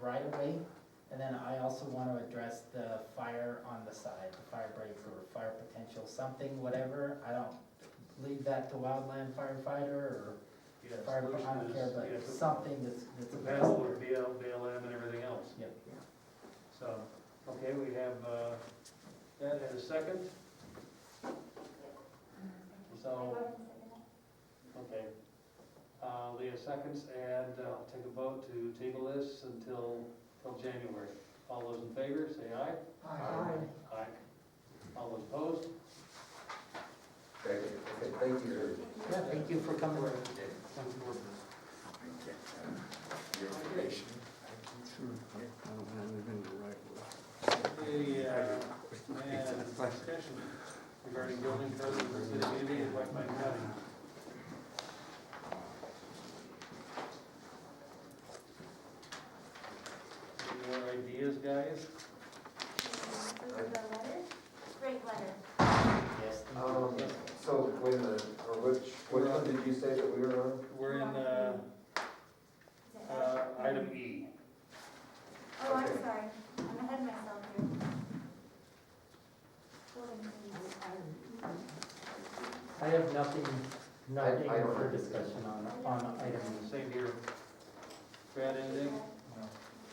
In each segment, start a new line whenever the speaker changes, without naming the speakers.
right of way. And then I also want to address the fire on the side, the fire break or fire potential, something, whatever. I don't leave that to wildland firefighter or
Yeah,
fire,
solution
I don't care,
is, yeah,
but
the-
something that's, that's
The
addressed.
battle with BL, BLM and everything else.
Yep.
So, okay, we have, uh, that as a second. So, okay. Uh, Leah seconds, and uh, I'll take a vote to table this until, till January. All those in favor, say aye. Aye. All those opposed?
Okay, okay, thank you.
Yeah, thank you for coming.
Your information.
I don't wanna live in the right
The, uh, and discussion regarding building codes in the city of Unity and White Pine County. Any more ideas, guys?
Great letter.
Yes. thank you.
Um, so wait a minute, or which, which one did you say that we were on?
We're in, uh, uh, item E.
Oh, I'm
okay.
sorry, I'm ahead of myself here. Building codes.
I have nothing, nothing
I don't
for
have anything.
discussion on, on item E.
Same here. Brad, anything?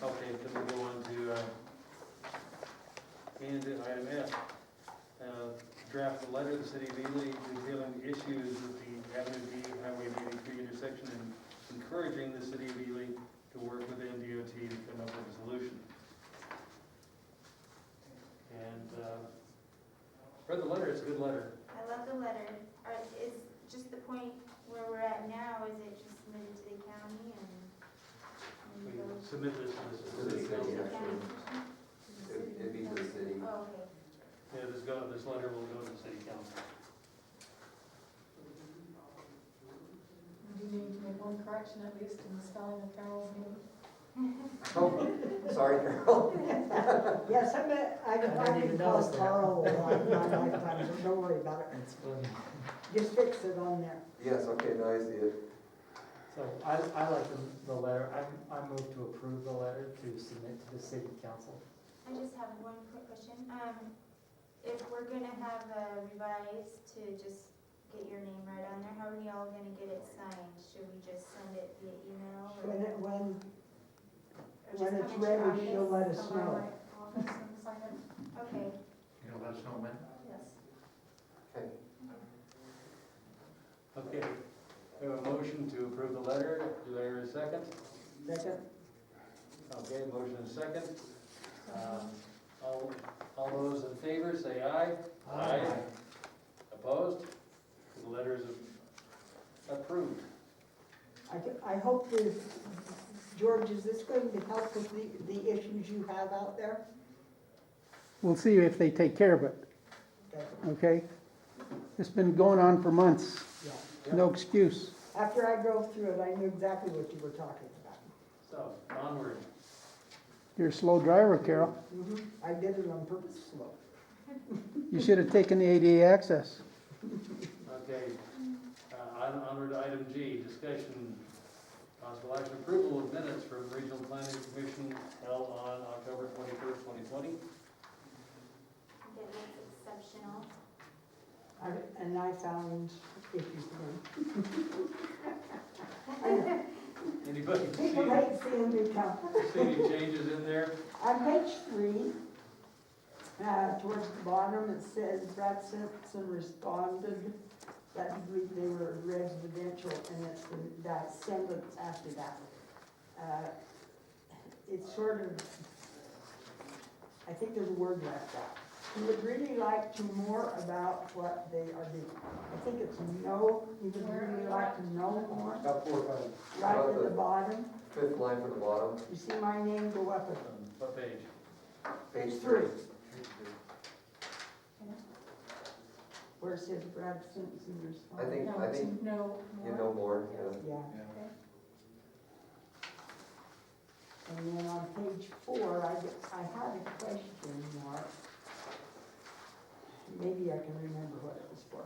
Okay, then we go on to, uh, and item F. Uh, Draft a letter to the city of Ely detailing the issues with the Avenue B and Highway meeting three intersection and encouraging the city of Ely to work with NDOT to come up with a solution. And, uh, read the letter, it's a good letter.
I love the letter, or is just the point where we're at now, is it just submitted to the county and? and
We
goes
submit this to
To
the
the
city
to
council.
city.
the
actually.
county?
It- It'd be to the city.
Oh, okay.
Yeah, this go, this letter will go to the city council.
Do you need to make one correction at least in the spelling of Carol's name?
Oh, sorry, Carol.
Yes, I bet, I
didn't even
finally
notice
called
that.
Carl a lot in my lifetime, so don't worry about it.
That's funny.
Just fix it on there.
Yes, okay, now I see it.
So I, I like the- the letter, I, I move to approve the letter to submit to the city council.
I just have one quick question. Um, if we're gonna have a revised to just get your name right on there, how are y'all gonna get it signed? Should we just send it via email or?
When it, when,
or just
when it's
come into your
ready, she'll let
office?
us know.
Okay,
You know, let us know when.
yes.
Okay.
Okay, we have a motion to approve the letter, do I hear a second?
Second,
Okay, motion and second. Um, All, all those in favor, say aye. Opposed? The letter is approved.
I, g- I hope this, George, is this going to help with the, the issues you have out there?
We'll see if they take care of it,
Okay,
okay? It's been going on for months,
yeah.
no excuse.
After I drove through it, I knew exactly what you were talking about.
So, onward.
You're a slow driver, Carol.
Mhm. I did it on purpose slow.
You should have taken the ADA access.
Okay, uh, on- onward to item G, discussion, possible action approval of minutes from Regional Planning Commission held on October twenty-first, twenty twenty.
That is exceptional.
I, and I found issues again. I know.
Anybody see,
People hate seeing me come.
see any changes in there?
On page three, uh, towards the bottom, it says Brad Simpson responded that he believed they were residential, and it's the- that sentence after that. Uh, It's sort of, I think there's a word left out. He would really like to more about what they are doing. I think it's no, he would really like to know more,
About four or five.
right at the bottom.
Fifth line from the bottom,
You see my name go up a
Um, What page?
page three.
Where it says Brad Simpson
I
responded.
think,
No,
I
it's
think
no
you
more.
know more, yeah.
Yeah. And then on page four, I, get- I had a question mark. Maybe I can remember what it was for.